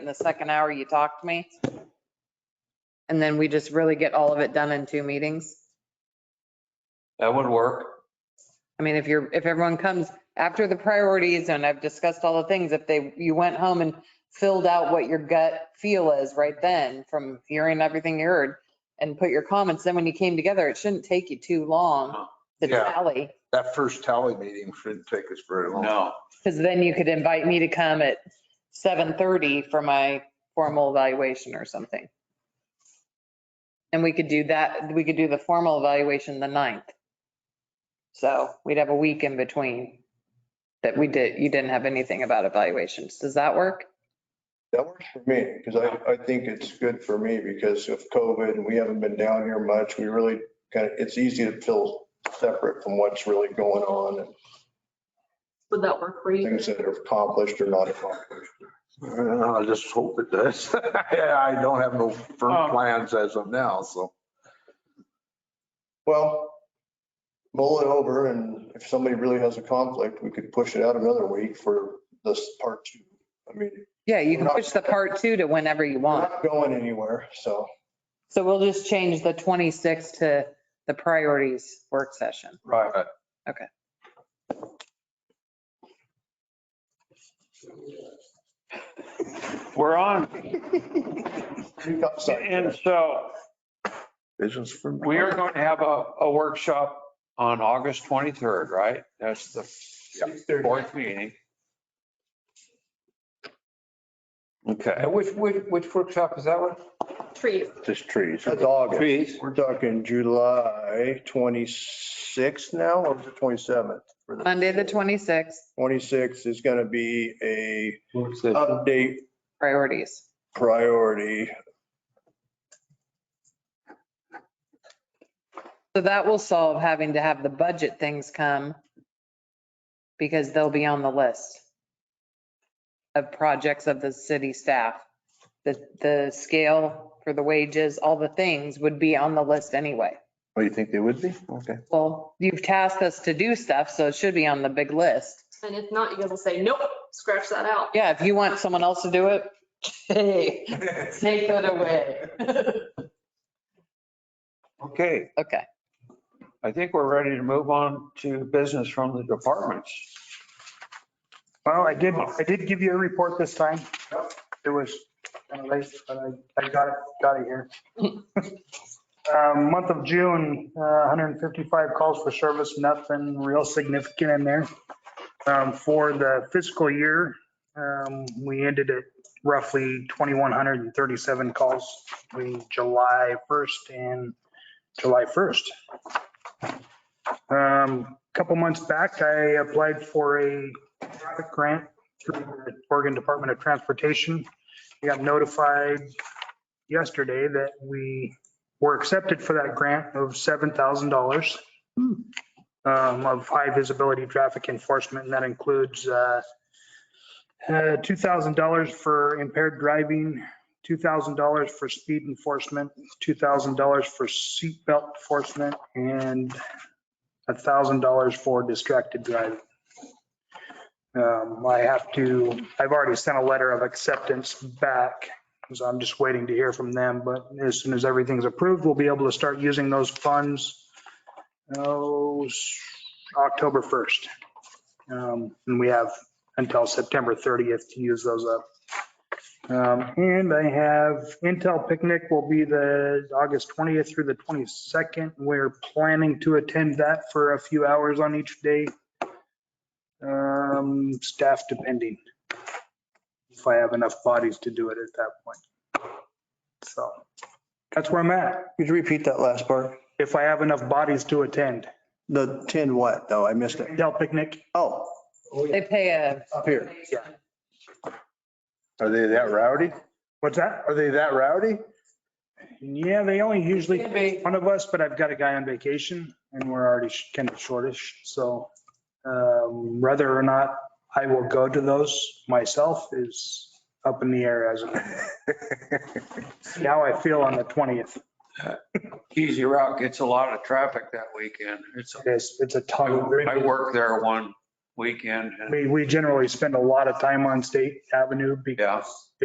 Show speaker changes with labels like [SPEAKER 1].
[SPEAKER 1] in the second hour you talk to me. And then we just really get all of it done in two meetings.
[SPEAKER 2] That would work.
[SPEAKER 1] I mean, if you're, if everyone comes after the priorities and I've discussed all the things, if they, you went home and filled out what your gut feel is right then from hearing everything you heard and put your comments, then when you came together, it shouldn't take you too long to
[SPEAKER 3] Yeah.
[SPEAKER 1] tally.
[SPEAKER 3] That first tally meeting shouldn't take us very long.
[SPEAKER 2] No,
[SPEAKER 1] Because then you could invite me to come at 7:30 for my formal evaluation or something. And we could do that, we could do the formal evaluation the 9th. So we'd have a week in between that we did, you didn't have anything about evaluations. Does that work?
[SPEAKER 4] That works for me, because I, I think it's good for me because of COVID and we haven't been down here much. We really kind of, it's easy to feel separate from what's really going on and
[SPEAKER 5] Would that work for you?
[SPEAKER 4] things that are accomplished or not accomplished.
[SPEAKER 3] Uh, I just hope it does. Yeah, I don't have no firm plans as of now, so.
[SPEAKER 4] Well, mull it over and if somebody really has a conflict, we could push it out another week for this part two. I mean,
[SPEAKER 1] Yeah, you can push the part two to whenever you
[SPEAKER 4] we're
[SPEAKER 1] want.
[SPEAKER 4] not going anywhere, so.
[SPEAKER 1] So we'll just change the 26th to the priorities work session.
[SPEAKER 3] Right.
[SPEAKER 6] We're on,
[SPEAKER 4] you got something.
[SPEAKER 6] and so
[SPEAKER 3] Visions for.
[SPEAKER 6] we are going to have a, a workshop on August 23rd, right? That's the fourth meeting. Okay,
[SPEAKER 2] and which, which, which workshop is that one?
[SPEAKER 5] Trees.
[SPEAKER 3] Just trees.
[SPEAKER 4] That's August.
[SPEAKER 6] trees,
[SPEAKER 4] We're talking July 26th now or is it 27th? for the-
[SPEAKER 1] Monday, the 26th,
[SPEAKER 4] 26 is going to be a
[SPEAKER 2] Workshop.
[SPEAKER 4] update
[SPEAKER 1] priorities.
[SPEAKER 4] priority.
[SPEAKER 1] So that will solve having to have the budget things come because they'll be on the list of projects of the city staff. The, the scale for the wages, all the things would be on the list anyway.
[SPEAKER 3] Oh, you think they would be? Okay.
[SPEAKER 1] Well, you've tasked us to do stuff, so it should be on the big list.
[SPEAKER 5] And if not, you guys will say, nope, scratch that out.
[SPEAKER 1] Yeah, if you want someone else to do it, hey, take it away.
[SPEAKER 6] okay.
[SPEAKER 1] Okay,
[SPEAKER 6] I think we're ready to move on to business from the departments.
[SPEAKER 7] Well, I did, I did give you a report this time. It was kind of late, but I, I got it, got it here. Uh, Month of June, uh, 155 calls for service, nothing real significant in there. Um, For the fiscal year, um, we ended at roughly 2,137 calls between July 1st and July 1st. Um, Couple months back, I applied for a traffic grant through the Oregon Department of Transportation. We got notified yesterday that we were accepted for that grant of $7,000 um, of high visibility traffic enforcement, and that includes uh, uh, $2,000 for impaired driving, $2,000 for speed enforcement, $2,000 for seatbelt enforcement, and $1,000 for distracted driving. Um, I have to, I've already sent a letter of acceptance back, so I'm just waiting to hear from them, but as soon as everything's approved, we'll be able to start using those funds. Oh, s- October 1st. Um, and we have until September 30th to use those up. Um, and I have Intel picnic will be the August 20th through the 22nd. We're planning to attend that for a few hours on each day. Um, staff depending. If I have enough bodies to do it at that point. So that's where I'm at.
[SPEAKER 4] Could you repeat that last part?
[SPEAKER 7] If I have enough bodies to attend.
[SPEAKER 4] The 10 what though? I missed it.
[SPEAKER 7] Dell picnic,
[SPEAKER 4] Oh,
[SPEAKER 1] they pay a.
[SPEAKER 4] up here.
[SPEAKER 3] Are they that rowdy?
[SPEAKER 7] what's that?
[SPEAKER 3] Are they that rowdy?
[SPEAKER 7] Yeah, they only usually
[SPEAKER 1] Could be.
[SPEAKER 7] one of us, but I've got a guy on vacation and we're already kind of shortish. So um, whether or not I will go to those myself is up in the air as of See how I feel on the 20th.
[SPEAKER 6] Easy Route gets a lot of traffic that weekend. It's,
[SPEAKER 7] It's, it's a
[SPEAKER 6] I
[SPEAKER 7] ton.
[SPEAKER 6] I worked there one weekend and
[SPEAKER 7] We, we generally spend a lot of time on State Avenue because
[SPEAKER 6] Yeah.